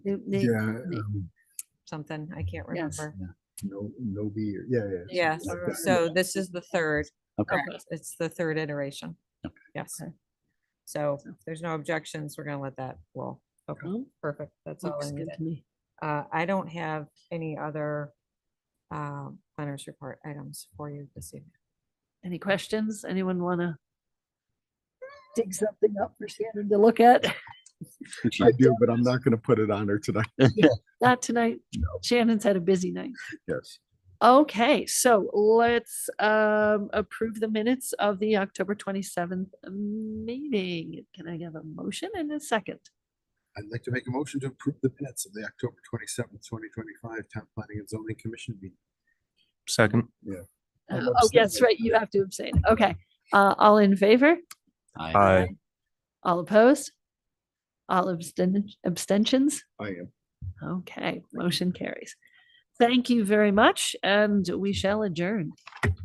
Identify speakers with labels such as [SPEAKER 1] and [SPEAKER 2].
[SPEAKER 1] They- they-
[SPEAKER 2] Yeah,
[SPEAKER 1] they-
[SPEAKER 2] um,
[SPEAKER 3] something, I can't
[SPEAKER 1] Yes.
[SPEAKER 3] remember.
[SPEAKER 2] no, no beer, yeah, yeah.
[SPEAKER 3] Yes,
[SPEAKER 2] something like that.
[SPEAKER 3] so this is the third,
[SPEAKER 4] Okay,
[SPEAKER 3] it's- it's the third iteration. Yes.
[SPEAKER 1] Okay.
[SPEAKER 3] So if there's no objections, we're gonna let that roll. Okay,
[SPEAKER 1] Oh,
[SPEAKER 3] perfect, that's all I
[SPEAKER 1] Looks good
[SPEAKER 3] needed.
[SPEAKER 1] to me.
[SPEAKER 3] Uh, I don't have any other uh, planners report items for you this evening.
[SPEAKER 1] Any questions? Anyone want to dig something up for Shannon to look at?
[SPEAKER 2] I do, but I'm not gonna put it on her tonight,
[SPEAKER 1] Not tonight. Shannon's had a busy night.
[SPEAKER 2] yes.
[SPEAKER 1] Okay, so let's um, approve the minutes of the October 27th meeting. Can I have a motion and a second?
[SPEAKER 2] I'd like to make a motion to approve the minutes of the October twenty-seventh, twenty twenty-five Town Planning and Zoning Commission meeting.
[SPEAKER 5] Second.
[SPEAKER 1] Uh,
[SPEAKER 2] I'm
[SPEAKER 1] Oh, yes,
[SPEAKER 2] abstaining.
[SPEAKER 1] right, you have to abstain. Okay, uh, all in favor?
[SPEAKER 4] I
[SPEAKER 1] All opposed? All absten- abstentions?
[SPEAKER 2] I am.
[SPEAKER 1] Okay, motion carries. Thank you very much, and we shall adjourn.